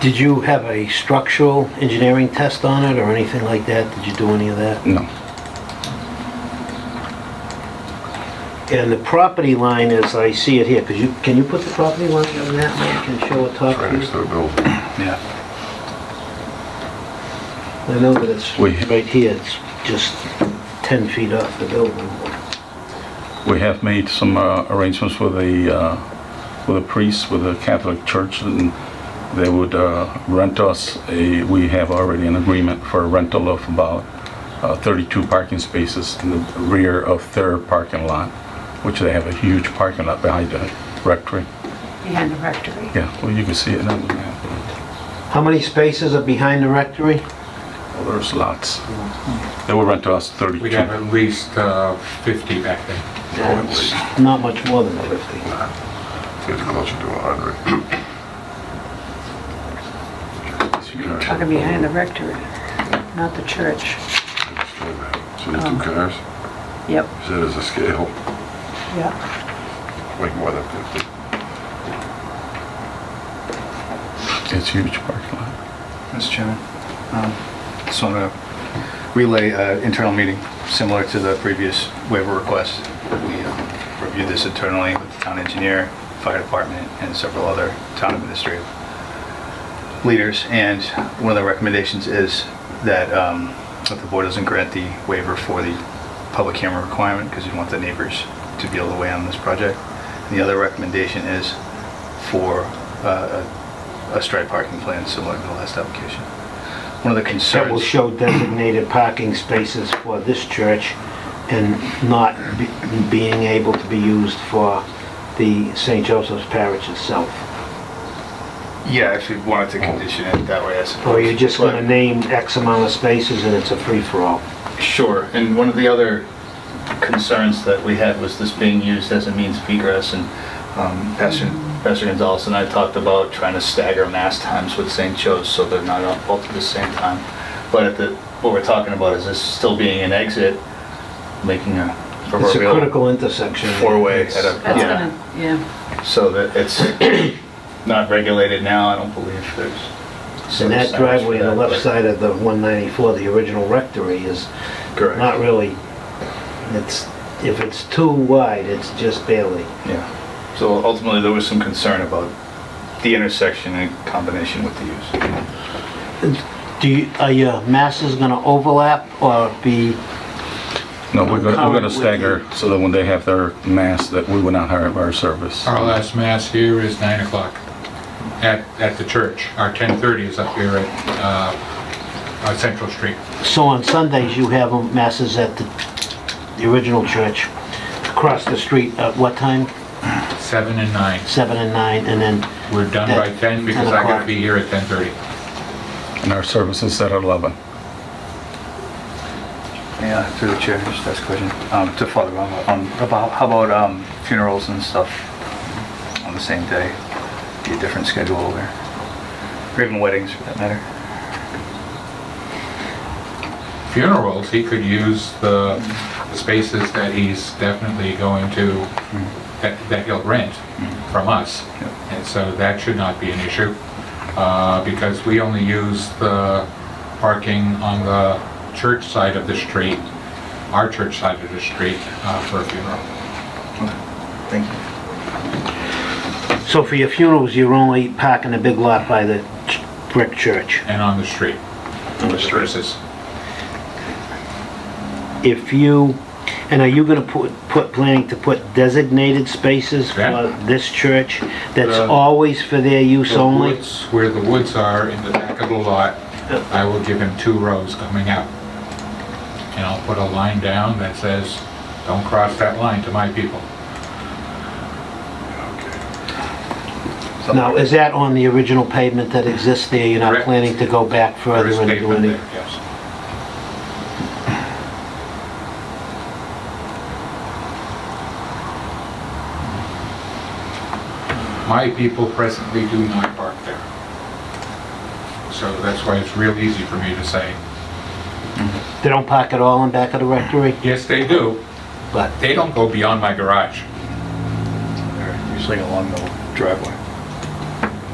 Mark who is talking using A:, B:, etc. A: Did you have a structural engineering test on it or anything like that? Did you do any of that?
B: No,
A: And the property line is, I see it here, because you, can you put the property line on that one? Can show a top
C: right next to
A: view?
C: the building.
B: yeah,
A: I know that it's
B: We-
A: right here, it's just 10 feet off the building.
B: we have made some uh, arrangements with the, uh, with a priest, with a Catholic church, and they would uh, rent us a, we have already an agreement for a rental of about uh, 32 parking spaces in the rear of their parking lot, which they have a huge parking lot behind the rectory.
D: behind the rectory.
B: Yeah, well, you can see it now. on the map.
A: How many spaces are behind the rectory?
B: Well, There's lots. They will rent to us 32.
C: We'd have at least uh, 50 back then.
A: It's Not much more than 50.
C: It's closer to 100.
D: Talking behind the rectory, not the church.
C: So the two cars,
D: Yep,
C: you said as a scale,
D: yep.
C: like more than 50.
B: It's huge parking lot.
E: Mr. Chairman, um, just want to relay uh, internal meeting similar to the previous waiver request. We uh, reviewed this internally with the town engineer, fire department, and several other town administrative leaders. And one of the recommendations is that um, if the board doesn't grant the waiver for the public camera requirement, because you want the neighbors to be able to weigh in on this project. And the other recommendation is for uh, a a striped parking plan similar to the last application. One of the
A: that will
E: concerns,
A: show designated parking spaces for this church and not be- being able to be used for the St. Joseph's Parish itself.
E: yeah, if you wanted to condition it that way, I suppose.
A: Or you're just gonna
E: But-
A: name X amount of spaces and it's a free-for-all.
E: Sure, and one of the other concerns that we had was this being used as a means of egress, and um, Pastor Pastor Gonzalez and I talked about trying to stagger mass times with St. Joe's, so they're not all both at the same time. But at the, what we're talking about is this still being an exit, making a
A: It's a
E: proverbial
A: critical intersection.
E: four-way at a,
D: That's
E: yeah,
D: gonna, yeah,
E: so that it's not regulated now, I don't believe there's.
A: And that driveway on the left
E: But-
A: side of the 194, the original rectory, is
E: Correct.
A: not really, it's, if it's too wide, it's just barely.
E: Yeah, so ultimately, there was some concern about the intersection in combination with the use.
A: Do you, are your masses gonna overlap or be
B: No, we're gonna, we're
A: Covered
B: gonna
A: with
B: stagger so that when they have their mass, that we will not have our service.
C: Our last mass here is 9 o'clock at, at the church. Our 10:30 is up here at uh, uh, Central Street.
A: So on Sundays, you have um, masses at the, the original church, across the street at what time?
C: 7 and 9.
A: Seven and nine, and then,
C: We're done by 10 because I gotta be here at 10:30.
B: And our service is at 11.
F: Yeah, through the chair, just ask a question. Um, to Father Ron, um, about, how about, um, funerals and stuff on the same day? Be a different schedule or, or even weddings for that matter?
C: Funerals, he could use the the spaces that he's definitely going to,
E: Mm-hmm.
C: that that he'll rent from us. And so that should not be an issue uh, because we only use the parking on the church side of the street, our church side of the street uh, for a funeral.
E: Thank you.
A: so for your funerals, you're only parking a big lot by the ch- brick church.
C: and on the street.
E: the street.
C: Versus-
A: If you, and are you gonna put, put, planning to put designated spaces for
C: Yeah.
A: this church? That's
C: Uh,
A: always for their use
C: The
A: only?
C: woods, where the woods are in the back of the lot, I will give him two rows coming out. And I'll put a line down that says, don't cross that line to my people.
A: Now, is that on the original pavement that exists there? You're not
C: Correct.
A: planning to go back
C: There
A: further
C: is
A: and do
C: pavement
A: any?
C: there, yes. My people presently do not park there. So that's why it's real easy for me to say,
A: They don't park at all in back of the rectory,
C: yes, they do,
A: but
C: they don't go beyond my garage.
E: Usually along the driveway.